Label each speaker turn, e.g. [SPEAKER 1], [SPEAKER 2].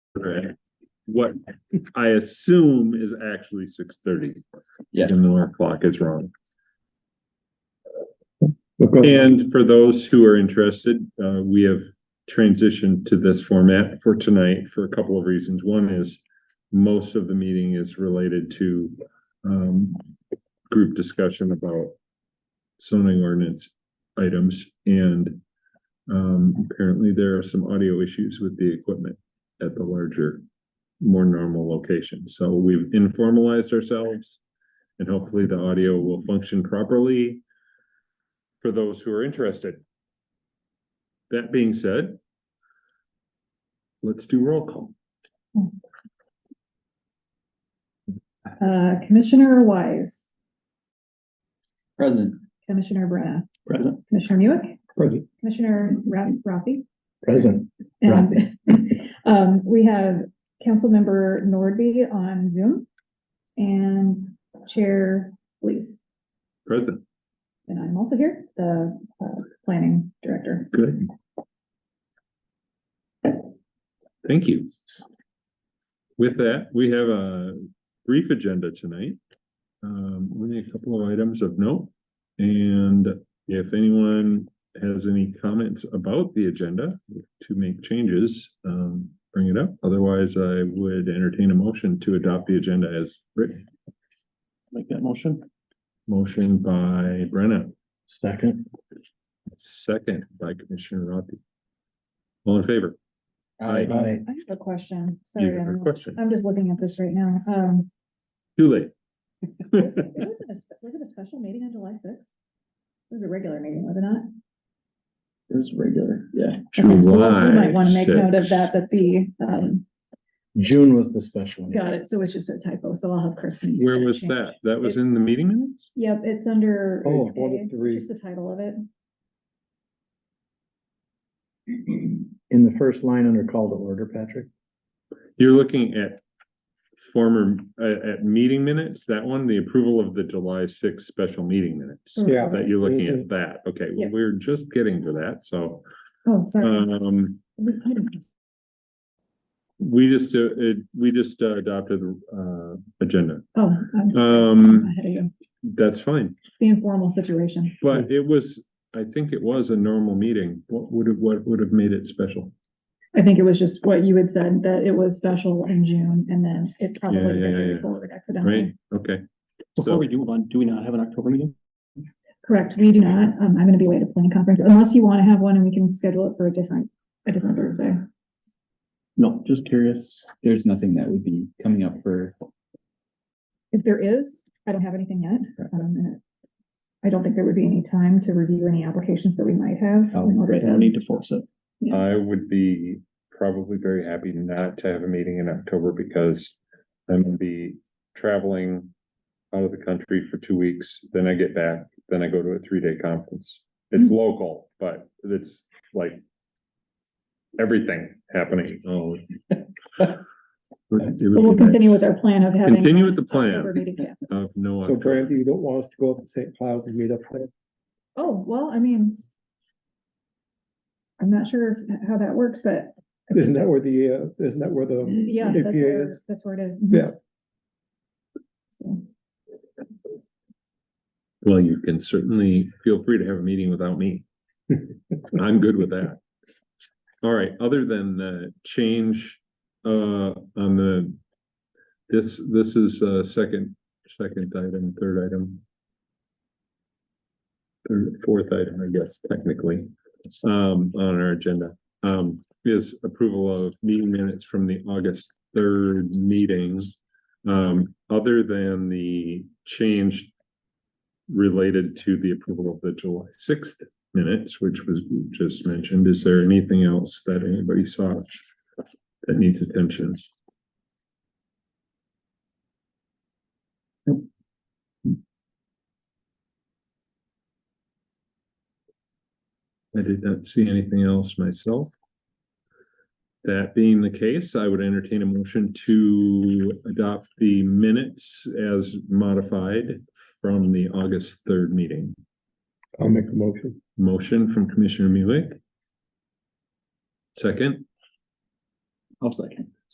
[SPEAKER 1] Right. What I assume is actually six thirty,
[SPEAKER 2] Yes.
[SPEAKER 1] even though our clock is wrong.
[SPEAKER 3] Okay,
[SPEAKER 1] And for those who are interested, uh, we have transitioned to this format for tonight for a couple of reasons. One is most of the meeting is related to, um, group discussion about zoning ordinance items and, um, apparently there are some audio issues with the equipment at the larger, more normal location. So we've informalized ourselves and hopefully the audio will function properly for those who are interested. That being said, let's do roll call.
[SPEAKER 4] Uh, Commissioner Wise,
[SPEAKER 2] Present.
[SPEAKER 4] Commissioner Brenna,
[SPEAKER 2] Present.
[SPEAKER 4] Commissioner Muick,
[SPEAKER 3] Present.
[SPEAKER 4] Commissioner Ra- Rafi.
[SPEAKER 3] Present.
[SPEAKER 4] And, um, we have Councilmember Nordby on Zoom and Chair Lees.
[SPEAKER 1] Present.
[SPEAKER 4] And I'm also here, the, uh, Planning Director.
[SPEAKER 1] Good. Thank you. With that, we have a brief agenda tonight. Um, only a couple of items of note. And if anyone has any comments about the agenda to make changes, um, bring it up. Otherwise, I would entertain a motion to adopt the agenda as written.
[SPEAKER 2] Make that motion.
[SPEAKER 1] Motion by Brenna,
[SPEAKER 3] Second.
[SPEAKER 1] second by Commissioner Rothi. All in favor? Aye.
[SPEAKER 3] Aye.
[SPEAKER 4] I have a question.
[SPEAKER 1] You
[SPEAKER 4] Sorry,
[SPEAKER 1] have a
[SPEAKER 4] I'm,
[SPEAKER 1] question?
[SPEAKER 4] I'm just looking at this right now. Um,
[SPEAKER 1] Too late.
[SPEAKER 4] was it was it a, spe- was it a special meeting on July sixth? It was a regular meeting, was it not?
[SPEAKER 2] It was regular, yeah.
[SPEAKER 4] Okay, so we Might want to make note of
[SPEAKER 1] July
[SPEAKER 4] that, that the, um,
[SPEAKER 3] June was the special. one.
[SPEAKER 4] Got it. So it's just a typo. So I'll have Chris. make
[SPEAKER 1] 6th. Where was
[SPEAKER 4] change.
[SPEAKER 1] that? That was in the meeting minutes?
[SPEAKER 4] Yep, it's under.
[SPEAKER 3] Oh,
[SPEAKER 4] A.
[SPEAKER 3] one of
[SPEAKER 4] It's
[SPEAKER 3] three.
[SPEAKER 4] Just the title of it.
[SPEAKER 3] In the first line under call to order, Patrick.
[SPEAKER 1] You're looking at former, uh, at meeting minutes, that one, the approval of the July sixth special meeting minutes.
[SPEAKER 3] Yeah.
[SPEAKER 1] That you're looking at that. Okay, well,
[SPEAKER 4] Mm-hmm. Yeah.
[SPEAKER 1] we're just getting to that, so,
[SPEAKER 4] Oh, sorry.
[SPEAKER 1] um,
[SPEAKER 4] We- I don't-
[SPEAKER 1] we just, uh, it, we just uh, adopted, uh, agenda.
[SPEAKER 4] Oh, I'm sorry. I'm
[SPEAKER 1] Um,
[SPEAKER 4] ahead of you.
[SPEAKER 1] that's fine,
[SPEAKER 4] The informal situation.
[SPEAKER 1] but it was, I think it was a normal meeting. What would have, what would have made it special?
[SPEAKER 4] I think it was just what you had said, that it was special in June and then it probably
[SPEAKER 1] yeah,
[SPEAKER 4] got
[SPEAKER 1] yeah,
[SPEAKER 4] carried
[SPEAKER 1] yeah.
[SPEAKER 4] forward
[SPEAKER 1] Right?
[SPEAKER 4] accidentally.
[SPEAKER 1] Okay,
[SPEAKER 2] Before we do move on, do we not have an October meeting?
[SPEAKER 4] Correct. We do not. Um, I'm going to be away at a planning conference unless you want to have one and we can schedule it for a different, a different Thursday.
[SPEAKER 2] No, just curious. There's nothing that would be coming up for.
[SPEAKER 4] If there is, I don't have anything yet.
[SPEAKER 2] Right.
[SPEAKER 4] Um, and I don't think there would be any time to review any applications that we might have.
[SPEAKER 2] Oh,
[SPEAKER 4] in order
[SPEAKER 2] right, I
[SPEAKER 4] to-
[SPEAKER 2] don't need to force it.
[SPEAKER 1] I would be probably very happy not to have a meeting in October because I'm gonna be traveling out of the country for two weeks, then I get back, then I go to a three-day conference. It's
[SPEAKER 4] Mm.
[SPEAKER 1] local, but it's like everything happening. Oh.
[SPEAKER 4] So we'll continue with our plan of having.
[SPEAKER 1] Continue with the plan
[SPEAKER 4] October meeting, yes.
[SPEAKER 1] of no.
[SPEAKER 3] So Grant, you don't want us to go up to St. Cloud and meet up there?
[SPEAKER 4] Oh, well, I mean. I'm not sure if- how that works, but
[SPEAKER 3] Isn't that where the, uh, isn't that where the,
[SPEAKER 4] yeah, that's
[SPEAKER 3] EPA
[SPEAKER 4] where,
[SPEAKER 3] is-
[SPEAKER 4] that's where it is.
[SPEAKER 3] yeah,
[SPEAKER 4] So,
[SPEAKER 1] Well, you can certainly feel free to have a meeting without me. I'm good with that. All right, other than the change, uh, on the, this, this is a second, second item, third item. Third, fourth item, I guess, technically, um, on our agenda, um, is approval of meeting minutes from the August third meeting. Um, other than the change related to the approval of the July sixth minutes, which was just mentioned, is there anything else that anybody saw that needs attention? I did not see anything else myself. That being the case, I would entertain a motion to adopt the minutes as modified from the August third meeting.
[SPEAKER 3] I'll make a motion.
[SPEAKER 1] Motion from Commissioner Muley. Second,
[SPEAKER 2] I'll second.